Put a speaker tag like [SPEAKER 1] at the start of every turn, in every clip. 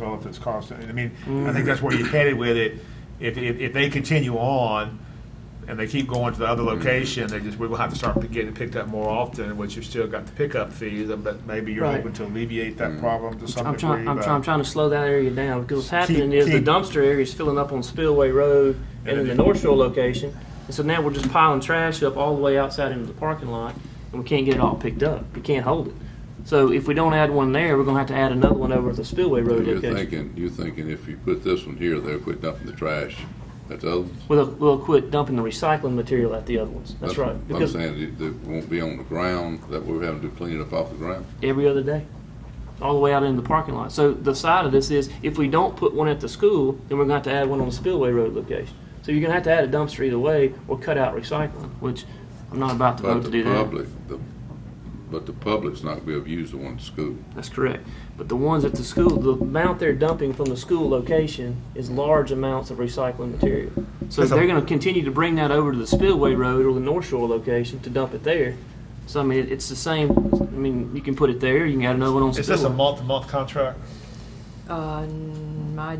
[SPEAKER 1] all of this constantly. I mean, I think that's where you're headed with it. If, if, if they continue on and they keep going to the other location, they just, we will have to start getting it picked up more often, which you've still got the pickup fees, but maybe you're
[SPEAKER 2] Right.
[SPEAKER 1] hoping to alleviate that problem to some
[SPEAKER 2] I'm
[SPEAKER 1] degree.
[SPEAKER 2] trying, I'm
[SPEAKER 1] by-
[SPEAKER 2] trying, I'm trying to slow that area down, because what's happening
[SPEAKER 1] Keep-
[SPEAKER 2] is the
[SPEAKER 1] keep-
[SPEAKER 2] dumpster area is filling up on Spillway Road and in the North Shore location, and so now we're just piling trash up all the way outside into the parking lot, and we can't get it all picked up, we can't hold it. So if we don't add one there, we're gonna have to add another one over at the Spillway Road
[SPEAKER 3] You're
[SPEAKER 2] location.
[SPEAKER 3] thinking, you're thinking if you put this one here, they'll quit dumping the trash at the others.
[SPEAKER 2] We'll, we'll quit dumping the recycling material at the other ones, that's right,
[SPEAKER 3] I'm
[SPEAKER 2] because
[SPEAKER 3] saying it, it won't be on the ground, that we're having to clean it up off the ground.
[SPEAKER 2] every other day, all the way out into the parking lot. So the side of this is, if we don't put one at the school, then we're going to have to add one on the Spillway Road location. So you're going to have to add a dumpster either way, or cut out recycling, which I'm not about to
[SPEAKER 3] But
[SPEAKER 2] vote to
[SPEAKER 3] the
[SPEAKER 2] do that.
[SPEAKER 3] public, the, but the public's not gonna be able to use the one at school.
[SPEAKER 2] That's correct. But the ones at the school, the amount they're dumping from the school location is large amounts of recycling material. So
[SPEAKER 1] That's a-
[SPEAKER 2] they're going to continue to bring that over to the Spillway Road or the North Shore location to dump it there. So I mean, it- it's the same, I mean, you can put it there, you can add another one on Spillway.
[SPEAKER 1] Is this a month-to-month contract?
[SPEAKER 4] Uh, n- I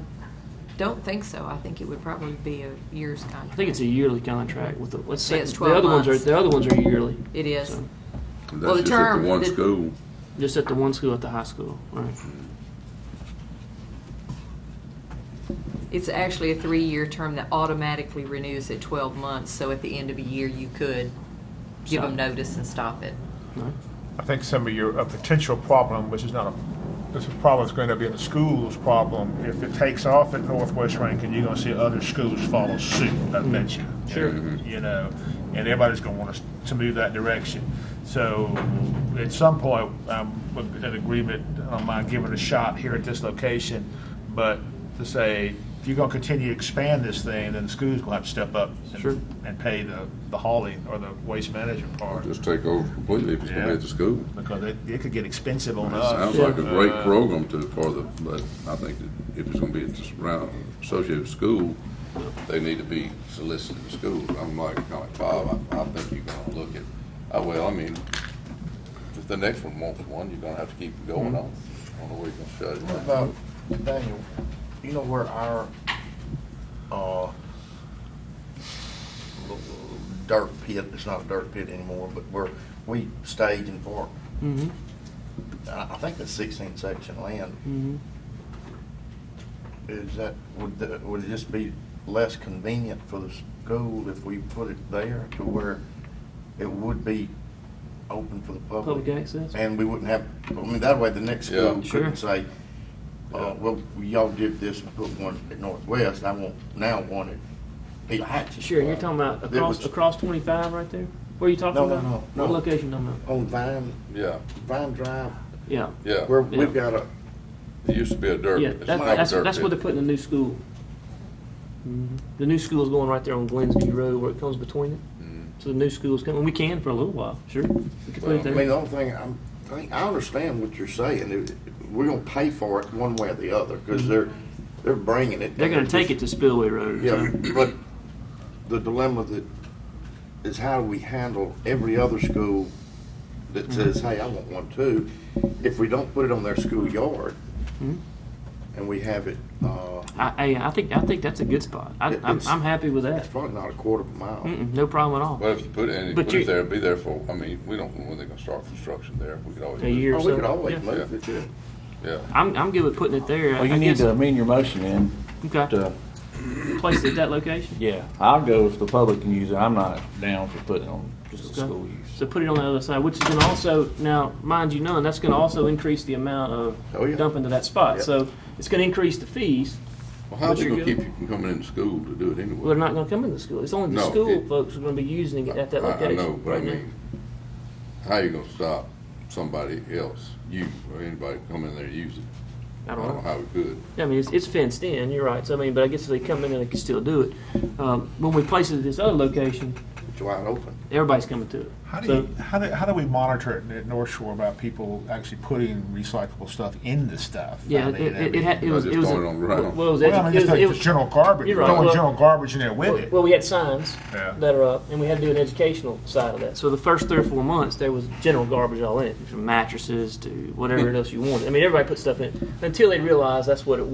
[SPEAKER 4] don't think so. I think it would probably be a year's contract.
[SPEAKER 2] I think it's a yearly contract with the, let's
[SPEAKER 4] Say
[SPEAKER 2] say,
[SPEAKER 4] it's
[SPEAKER 2] the
[SPEAKER 4] 12
[SPEAKER 2] other ones are,
[SPEAKER 4] months.
[SPEAKER 2] the other ones are yearly,
[SPEAKER 4] It is.
[SPEAKER 2] So-
[SPEAKER 3] And
[SPEAKER 4] Well, the
[SPEAKER 3] That's just at
[SPEAKER 4] term-
[SPEAKER 3] the one
[SPEAKER 4] the-
[SPEAKER 3] school.
[SPEAKER 2] just at the one school at the high school, right?
[SPEAKER 4] It's actually a three-year term that automatically renews at 12 months, so at the end of a year, you could give them
[SPEAKER 2] Stop.
[SPEAKER 4] notice and stop it.
[SPEAKER 2] Right.
[SPEAKER 1] I think some of your, a potential problem, which is not a, this problem is going to be the school's problem. If it takes off at Northwest Rankin, you're going to see other schools follow suit, I bet you.
[SPEAKER 2] Mm-hmm.
[SPEAKER 1] Mm-hmm.
[SPEAKER 2] Sure.
[SPEAKER 1] You know, and everybody's going to want us to move that direction. So at some point, I'm with an agreement on my giving it a shot here at this location, but to say, if you're going to continue to expand this thing, then the school's going to have to step up and-
[SPEAKER 2] Sure.
[SPEAKER 1] and pay the, the hauling or the waste management
[SPEAKER 2] Mm-hmm.
[SPEAKER 1] part
[SPEAKER 3] Just take over completely if it's gonna be at the school.
[SPEAKER 1] because it, it could get expensive on
[SPEAKER 3] It
[SPEAKER 1] us.
[SPEAKER 3] sounds like a
[SPEAKER 1] Uh,
[SPEAKER 3] great program to, for the, but I think that if it's gonna be just around, associated with school, they need to be solicited in school. I'm like, kinda like Bob, I, I think you're gonna look at, uh, well, I mean, if the next one wants one, you're gonna have to keep it going on. I don't know where you're gonna shut it
[SPEAKER 5] What
[SPEAKER 3] down.
[SPEAKER 5] about, Daniel, you know where our, uh, little dirt pit, it's not a dirt pit anymore, but where we stage and park,
[SPEAKER 2] Mm-hmm.
[SPEAKER 5] I, I think that's sixteen section land.
[SPEAKER 2] Mm-hmm.
[SPEAKER 5] Is that, would, the- would it just be less convenient for the school if we put it there to where it would be open for the
[SPEAKER 2] Public access.
[SPEAKER 5] And we wouldn't have, I mean, that way the next school
[SPEAKER 3] Yeah.
[SPEAKER 5] couldn't say, uh, well, y'all did this and put one at Northwest, I want, now one at Peter Hatch.
[SPEAKER 2] Sure, you're talking about
[SPEAKER 5] It
[SPEAKER 2] across
[SPEAKER 5] was-
[SPEAKER 2] across 25 right there. Where are you talking
[SPEAKER 5] No, no,
[SPEAKER 2] about?
[SPEAKER 5] no, no.
[SPEAKER 2] What location you talking about?
[SPEAKER 5] Uh, On Vine, uh,
[SPEAKER 3] Yeah,
[SPEAKER 5] Vine Drive,
[SPEAKER 2] Yeah.
[SPEAKER 3] yeah.
[SPEAKER 5] where
[SPEAKER 2] Yeah.
[SPEAKER 5] we've got a,
[SPEAKER 3] It used to be a dirt.
[SPEAKER 2] Yeah,
[SPEAKER 3] It's
[SPEAKER 2] that,
[SPEAKER 3] not a
[SPEAKER 2] that's,
[SPEAKER 3] dirt
[SPEAKER 2] that's
[SPEAKER 3] pit.
[SPEAKER 2] where they're putting the new school. Mhm. The new school's going right there on Glensby Road where it comes between it. So the new school's coming. We can for a little while, sure. We can put
[SPEAKER 3] Well,
[SPEAKER 2] it
[SPEAKER 5] Mm-hmm. I
[SPEAKER 2] there.
[SPEAKER 5] mean, the only thing, I'm, I think, I understand what you're saying, It- we're gonna pay for it one way or the other, cause they're, they're bringing it.
[SPEAKER 2] Mm-hmm. they're going to take it to Spillway Road.
[SPEAKER 5] Yeah, but the dilemma that is how do we handle every other school that says, hey, I want one too? If we don't put it on their school yard
[SPEAKER 2] Mhm.
[SPEAKER 5] and we have it, uh,
[SPEAKER 2] I, hey, I think I think that's a good spot. I,
[SPEAKER 5] It-
[SPEAKER 2] I'm,
[SPEAKER 5] it's-
[SPEAKER 2] I'm happy with
[SPEAKER 5] it's
[SPEAKER 2] that.
[SPEAKER 5] probably not a quarter of a mile.
[SPEAKER 2] Mm-mm, no problem at all.
[SPEAKER 3] Well, if you put it, and you
[SPEAKER 2] But
[SPEAKER 3] put
[SPEAKER 2] you-
[SPEAKER 3] it there, it'd be there for, I mean, we don't know when they're gonna start construction there. We could always.
[SPEAKER 2] A
[SPEAKER 3] move it.
[SPEAKER 2] year or
[SPEAKER 5] Oh,
[SPEAKER 2] so.
[SPEAKER 5] we could
[SPEAKER 2] yeah.
[SPEAKER 5] always move it, yeah.
[SPEAKER 3] Yeah.
[SPEAKER 2] I'm, I'm good with putting it there.
[SPEAKER 6] Well,
[SPEAKER 2] I
[SPEAKER 6] you need
[SPEAKER 2] guess-
[SPEAKER 6] to amend your motion in
[SPEAKER 2] Okay,
[SPEAKER 6] to,
[SPEAKER 2] place it at that location.
[SPEAKER 6] yeah, I'll go if the public can use it. I'm not down for putting it on just the
[SPEAKER 2] Okay.
[SPEAKER 6] school use.
[SPEAKER 2] So put it on the other side, which is gonna also, now, mind you, none, that's gonna also increase the amount
[SPEAKER 5] Oh, yeah.
[SPEAKER 2] of dumping to that spot.
[SPEAKER 5] Yeah.
[SPEAKER 2] So it's gonna increase the fees,
[SPEAKER 3] Well, how's
[SPEAKER 2] But
[SPEAKER 3] it gonna
[SPEAKER 2] you're
[SPEAKER 3] keep you from coming into school to do it anyway?
[SPEAKER 2] Well, they're not gonna come in the school. It's only the
[SPEAKER 3] No,
[SPEAKER 2] school
[SPEAKER 3] it-
[SPEAKER 2] folks who are gonna be using it at Mm-hmm. that
[SPEAKER 3] I-
[SPEAKER 2] location.
[SPEAKER 3] I know, but I
[SPEAKER 2] right now.
[SPEAKER 3] mean, how you gonna stop somebody else, you or anybody coming in there and use it?
[SPEAKER 2] I don't know.
[SPEAKER 3] how we could.
[SPEAKER 2] I mean, it's, it's fenced in, you're right. So, I mean, but I guess if they come in, they can still do it. Um, when we place it at this other location,
[SPEAKER 5] it's wide open.
[SPEAKER 2] Everybody's coming to it.
[SPEAKER 1] How do
[SPEAKER 2] So-
[SPEAKER 1] you, how do, how do we monitor it at North Shore about people actually putting recyclable stuff in the stuff?
[SPEAKER 2] Yeah,
[SPEAKER 1] I
[SPEAKER 2] it,
[SPEAKER 1] mean, I
[SPEAKER 2] it,
[SPEAKER 1] mean-
[SPEAKER 2] it had, it
[SPEAKER 3] I
[SPEAKER 2] was,
[SPEAKER 3] just
[SPEAKER 2] it was.
[SPEAKER 3] throw it on the ground.
[SPEAKER 2] Well, it was,
[SPEAKER 1] Well, I
[SPEAKER 2] edu-
[SPEAKER 1] mean,
[SPEAKER 2] it
[SPEAKER 1] just
[SPEAKER 2] was,
[SPEAKER 1] like
[SPEAKER 2] it was-
[SPEAKER 1] general garbage,
[SPEAKER 2] You're
[SPEAKER 1] We're
[SPEAKER 2] right.
[SPEAKER 1] throwing
[SPEAKER 2] Well-
[SPEAKER 1] general garbage in there with it.
[SPEAKER 2] Well, we had signs
[SPEAKER 1] Yeah.
[SPEAKER 2] that are up, and we had to do an educational side of that. So the first three or four months, there was general garbage all in it, from mattresses to whatever else you wanted. I mean, everybody put stuff in it, until they realized that's what it was.